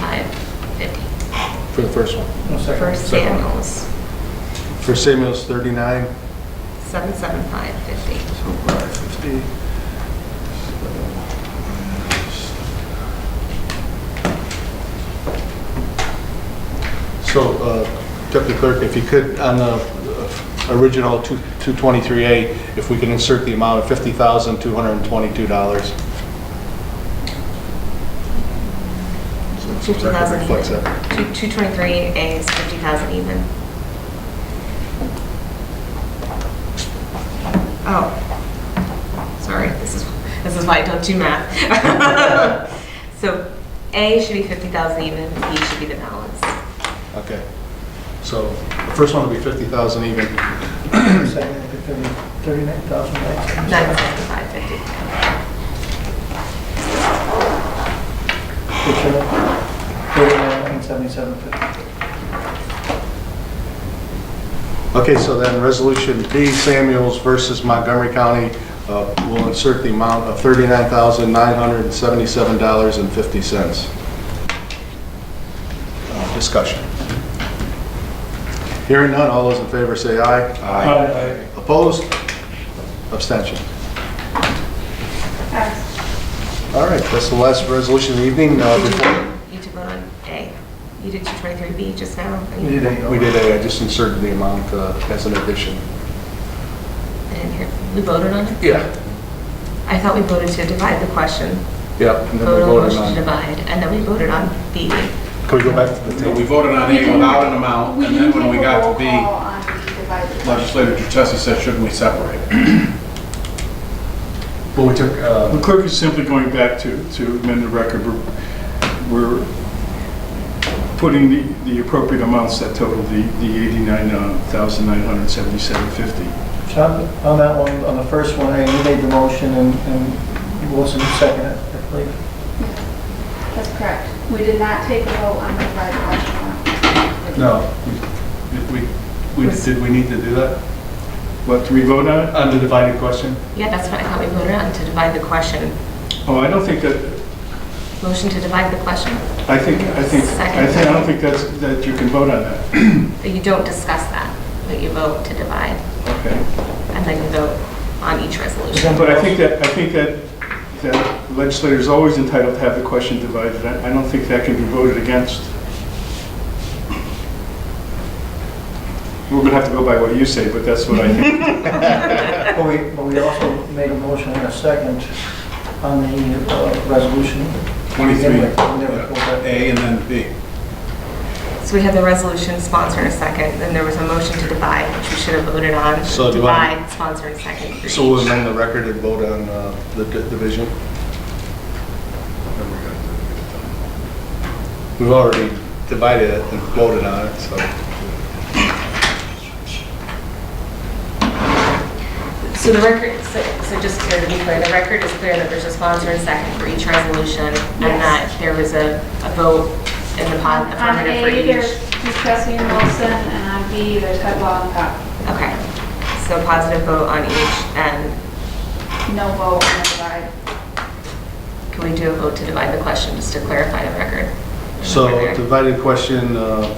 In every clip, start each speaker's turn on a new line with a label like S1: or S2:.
S1: 39,775.50
S2: for the first one.
S3: No
S1: for
S3: second.
S1: Samuels,
S2: For Samuel's, 39,
S1: 775.50.
S2: so 550. So uh, Deputy Clerk, if you could, on the uh, original 2 223A, if we can insert the amount of $50,222. So the record
S1: 2,000
S2: reflects
S1: even.
S2: that.
S1: Two- 223A is 50,000 even. Oh, sorry, this is, this is why I don't do math. So A should be 50,000 even, B should be the balance.
S2: Okay. So the first one will be 50,000 even.
S3: Second, it'd be thirty- 39,000, right?
S1: 975.50.
S3: Good show. 39,775.
S2: Okay, so then Resolution B, Samuels versus Montgomery County, uh, will insert the amount of $39,977.50. Uh, Discussion. Hearing none, all those in favor say aye.
S3: Aye.
S2: Opposed? Abstention. All right, that's the last resolution of the evening. Uh,
S1: Did
S2: before-
S1: You you took vote on A. You did 223B just now.
S3: We did
S1: I
S3: A.
S2: We did, a- I just inserted the amount uh, as an addition.
S1: didn't hear. We voted on it?
S2: Yeah.
S1: I thought we voted to divide the question.
S2: Yep. and then
S1: Voted
S2: we
S1: on the
S2: voted
S1: motion to
S2: on-
S1: divide, and then we voted on B.
S2: Can we go back to the
S4: So we
S2: table?
S4: voted on A without an amount,
S5: We
S4: and then
S5: didn't
S4: when we
S5: take a
S4: got
S5: roll
S4: to
S5: call
S4: B,
S5: on the divided.
S4: legislator Duchessis said, shouldn't we separate? it?"
S2: Well, we took, uh,
S6: The clerk is simply going back to, to amend the record. We're- We're putting the, the appropriate amounts that total the, the eighty-nine um, thousand nine hundred seventy-seven fifty.
S3: So on- on that one, on the first one, hey, you made the motion and and Wilson seconded, it, I believe.
S5: That's correct. We did not take a vote on the divided question.
S2: no,
S6: Did we, we, did we need to do that? What, do we vote on it?
S2: on the divided question?
S1: Yeah, that's what I thought we voted on, to divide the question.
S6: Oh, I don't think that,
S1: Motion to divide the question,
S6: I think, I think, I think, I don't think that's, that you can vote on that.
S1: but you don't discuss that, but you vote to divide,
S6: Okay.
S1: and then you vote on each resolution.
S6: But I think that, I think that, that legislator is always entitled to have the question divided. I I don't think that can be voted against. We're going to have to go by what you say, but that's what I think.
S3: But we, but we also made a motion and a second on the uh, resolution.
S4: 23,
S3: Never- never go back.
S4: A and then B.
S1: So we had the resolution sponsor and second, then there was a motion to divide, which we should have voted on.
S2: So do I-
S1: Divide, sponsor and second. for
S2: So we'll
S1: each.
S2: amend the record and vote on uh, the di- division? We've already divided it and voted on it, so.
S1: So the record, so so just clear to be clear, the record is clear that there's a sponsor and second for each resolution, and
S5: Yes.
S1: that there was a a vote in the po-
S5: On
S1: affirmative for
S5: A, there's
S1: each.
S5: Duchessis and Wilson, and on B, there's Headlaw and Cobb.
S1: Okay, so positive vote on each, and
S5: No vote on the divide.
S1: can we do a vote to divide the question, just to clarify the record?
S2: So divided question, uh,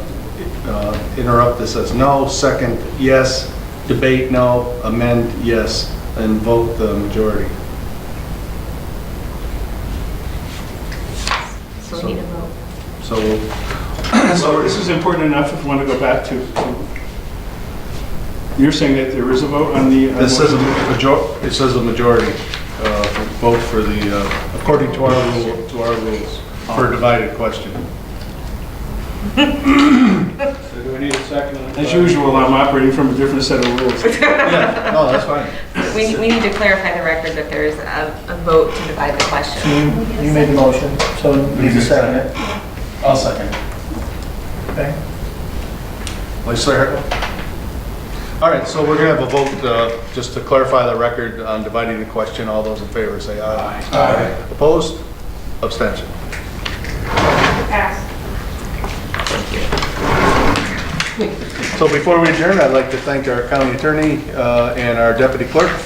S2: uh, interrupt this as no, second, yes, debate, no, amend, yes, and vote the majority.
S1: So we need a vote.
S2: So we'll
S6: So this is important enough if you want to go back to, to- you're saying that there is a vote on the... uh, on
S2: This says a
S6: the-
S2: major, it says a majority, uh, for- vote for the, uh, according to our rule, to our rules, for a divided question.
S4: So do we need a second?
S6: As usual, I'm operating from a different set of rules.
S2: Yeah, no, that's fine.
S1: We we need to clarify the record that there is a a vote to divide the
S3: So
S1: question.
S3: you, you made the motion, so need to second it,
S2: I'll second.
S3: okay?
S2: Legislator Hickman? All right, so we're gonna have a vote, uh, just to clarify the record on dividing the question. All those in favor say aye.
S4: Aye.
S2: Opposed? Abstention.
S5: Pass.
S2: So before we adjourn, I'd like to thank our county attorney uh, and our deputy clerk